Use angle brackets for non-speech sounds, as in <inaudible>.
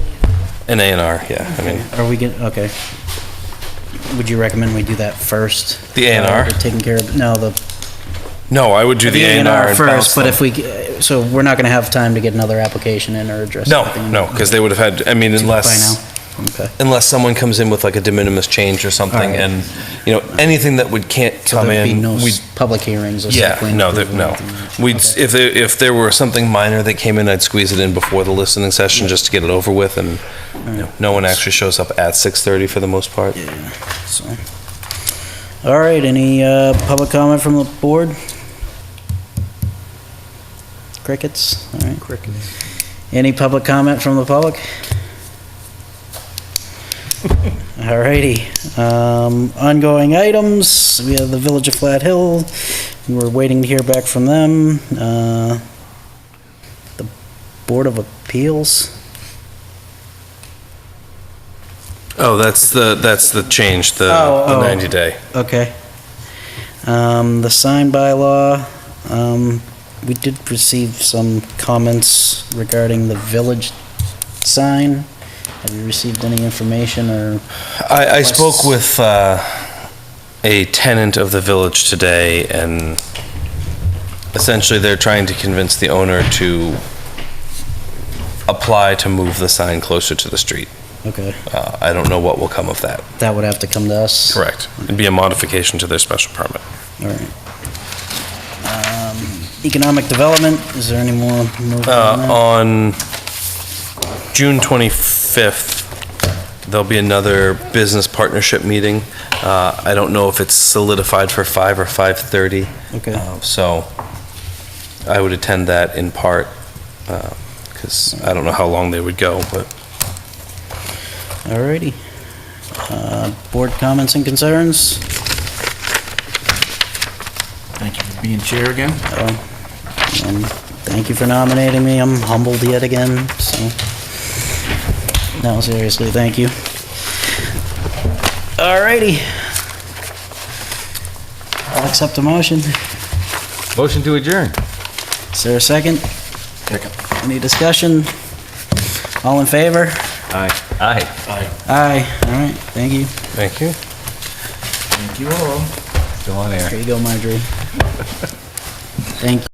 An A and R, yeah, I mean, Are we get, okay. Would you recommend we do that first? The A&R? Uh, Taking care of, no, the. no, I would do the A and R and bounce First, but them. if we, g- so we're not gonna have time to get another application in or address. No, everything no, because they would have had, I mean, By unless, now, okay. unless someone comes in with like a de minimis change or something Alright. and, you know, anything that would, can't So come there'd be in, no s- we Public hearings or Yeah, something. no, there- no. We, if, there- if there were something minor that came in, I'd squeeze it in before the listening session just to get it over with and you know, no one actually shows up at 6:30 for the most part. All right, any, uh, public comment from the board? Crickets, all right. Crickets. Any public comment from the public? All righty. Um, Ongoing items, we have the Village of Flat Hill. We're waiting to hear back from them. Uh, The Board of Appeals, Oh, that's the, that's the change, the Oh, the oh. 90-day. okay. Um, The sign bylaw, um, we did receive some comments regarding the village sign. Have you received any information or? I, I spoke with uh, a tenant of the village today, and essentially they're trying to convince the owner to apply to move the sign closer to the street. Okay, Uh, I don't know what will come of that. that would have to come to us. Correct. It'd be a modification to their special permit. All right. Um, Economic development, is there any more movement on Uh, that? on June 25th, there'll be another business partnership meeting. Uh, I don't know if it's solidified for 5 or 5:30. Okay. Uh, So I would attend that in part, because I don't know how long they would go, but All righty. Uh, Board comments and concerns? Thank you for being chair again. Um, Thank you for nominating me, I'm humbled yet again, so. No, seriously, thank you. All righty. I'll accept the motion. Motion to adjourn. Is there a second? Second. Any discussion? All in favor? Aye. Aye. Aye, all right, thank you. thank you. Thank you all. Still on air. <laughs> There you go, Marjorie. Thank you.